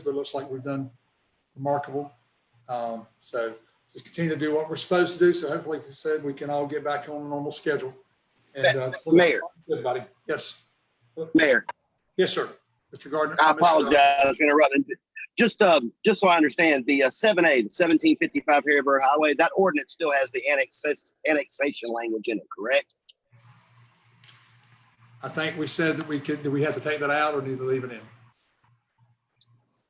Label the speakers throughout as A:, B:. A: but it looks like we've done remarkable. Um, So just continue to do what we're supposed to do. So hopefully, like I said, we can all get back on a normal schedule. And, uh,
B: Mayor.
A: Good, buddy. Yes.
B: Mayor,
A: Yes, sir. Mr. Gardner.
B: I apologize for interrupting. Just, um, just so I understand, the uh, seven A, the seventeen fifty-five Harrisburg Highway, that ordinance still has the annex- annexation language in it, correct?
A: I think we said that we could, do we have to take that out or need to leave it in?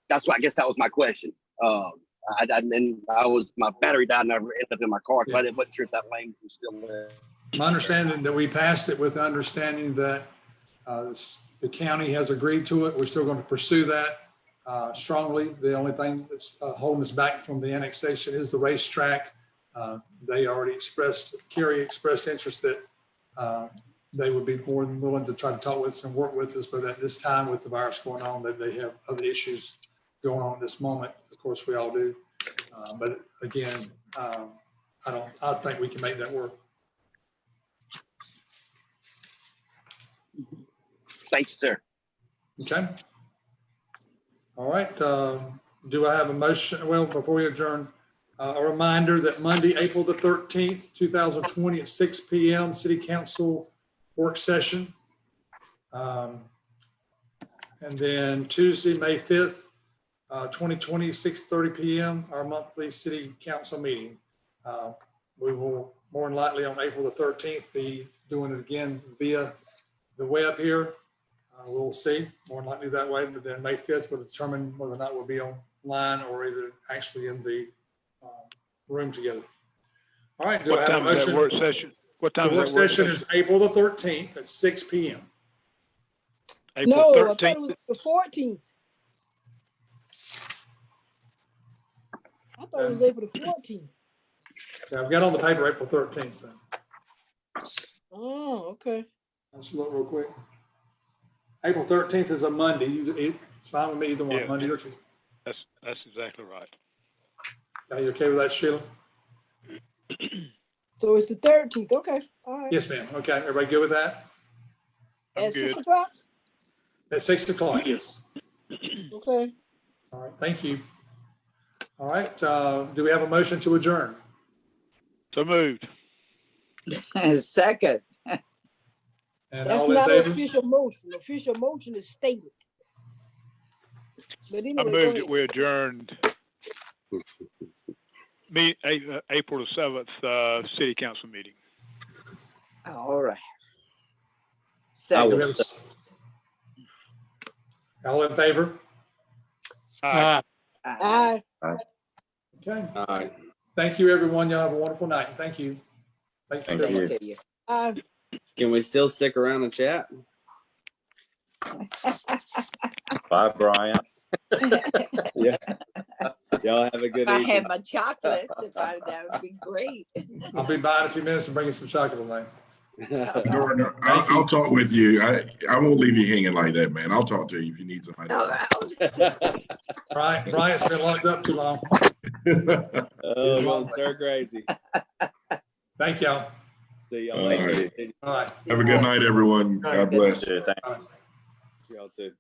B: That's what, I guess that was my question. Um, I, I, and I was, my battery died and I ended up in my car, so I didn't, wasn't sure if that language was still there.
A: My understanding that we passed it with the understanding that uh, this- the county has agreed to it. We're still going to pursue that uh, strongly. The only thing that's uh, holding us back from the annexation is the racetrack. Uh, They already expressed, Kerry expressed interest that uh, they would be more than willing to try to talk with us and work with us, but at this time with the virus going on, that they have other issues going on at this moment. Of course, we all do. Uh, But again, um, I don't, I think we can make that work.
B: Thank you, sir.
A: Okay. All right, um, do I have a motion? Well, before we adjourn, uh, a reminder that Monday, April the 13th, 2020 at 6 PM, City Council Work Session. Um, And then Tuesday, May 5th, uh, 2020, 6:30 PM, our monthly City Council meeting. Uh, We will more than likely on April the 13th be doing it again via the web here. Uh, We'll see, more than likely that way, but then May 5th will determine whether or not we'll be online or either actually in the um, room together. All right. do I
C: What
A: have a
C: time is that
A: motion?
C: work session? What time
A: The work
C: is that work
A: session
C: session?
A: is April the 13th at 6 PM.
C: April
D: No, I thought it
C: thirteenth?
D: was the fourteenth. I thought it was April the fourteenth.
A: Yeah, I've got on the paper April 13th. so
D: Oh, okay.
A: Let's look real quick. April 13th is a Monday. You- it- It's fine with me either
C: Yeah.
A: one, Monday or Tuesday.
C: That's, that's exactly right.
A: Are you okay with that, Sheila?
D: So it's the thirteenth, okay, all right.
A: Yes, ma'am. Okay, everybody good with that?
C: I'm
D: At
C: good.
D: six o'clock,
A: At 6 o'clock, yes.
D: okay.
A: All right, thank you. All right, uh, do we have a motion to adjourn?
C: So moved.
E: Second,
A: And
D: That's
A: all in
D: not an
A: favor?
D: official motion. Official motion is stated. But
C: I
D: anyway, go
C: moved
D: ahead.
C: it. We adjourned. Me, A- uh, April the seventh, uh, city council meeting.
E: all right.
A: Do we
E: Second,
A: have a s- All in favor?
C: Aye.
E: aye.
D: Aye.
A: Okay,
F: All right.
A: thank you, everyone. Y'all have a wonderful night. Thank you. Thanks.
F: Thank
A: everyone.
E: Same
F: you.
E: to you.
D: aye.
F: Can we still stick around and chat? Bye, Brian. Yeah. Y'all have a
E: If
F: good
E: I
F: evening.
E: had my chocolates, if I, that would be great.
A: I'll be by in a few minutes and bring you some chocolate, man.
G: Norton, I'll, I'll talk with you. I, I won't leave you hanging like that, man. I'll talk to you if you need somebody.
E: All right.
A: Brian, Brian's been locked up too long.
F: Oh, well, sir, crazy.
A: Thank y'all.
F: See y'all
G: All
F: later.
A: Bye.
G: Have a good night, everyone. God bless.
A: Bye.
F: Y'all too.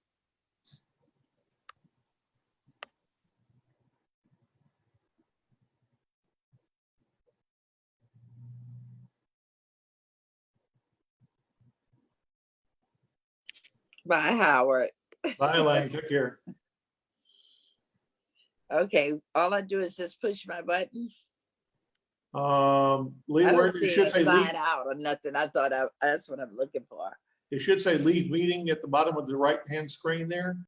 E: Bye, Howard.
H: Bye, Elaine. Take care.
E: Okay, all I do is just push my button.
H: Um,
E: I
H: leave, where
E: don't
H: it
E: see a
H: should say leave,
E: sign out or nothing. I thought I, that's what I'm looking for.
H: it should say leave meeting at the bottom of the right-hand screen there.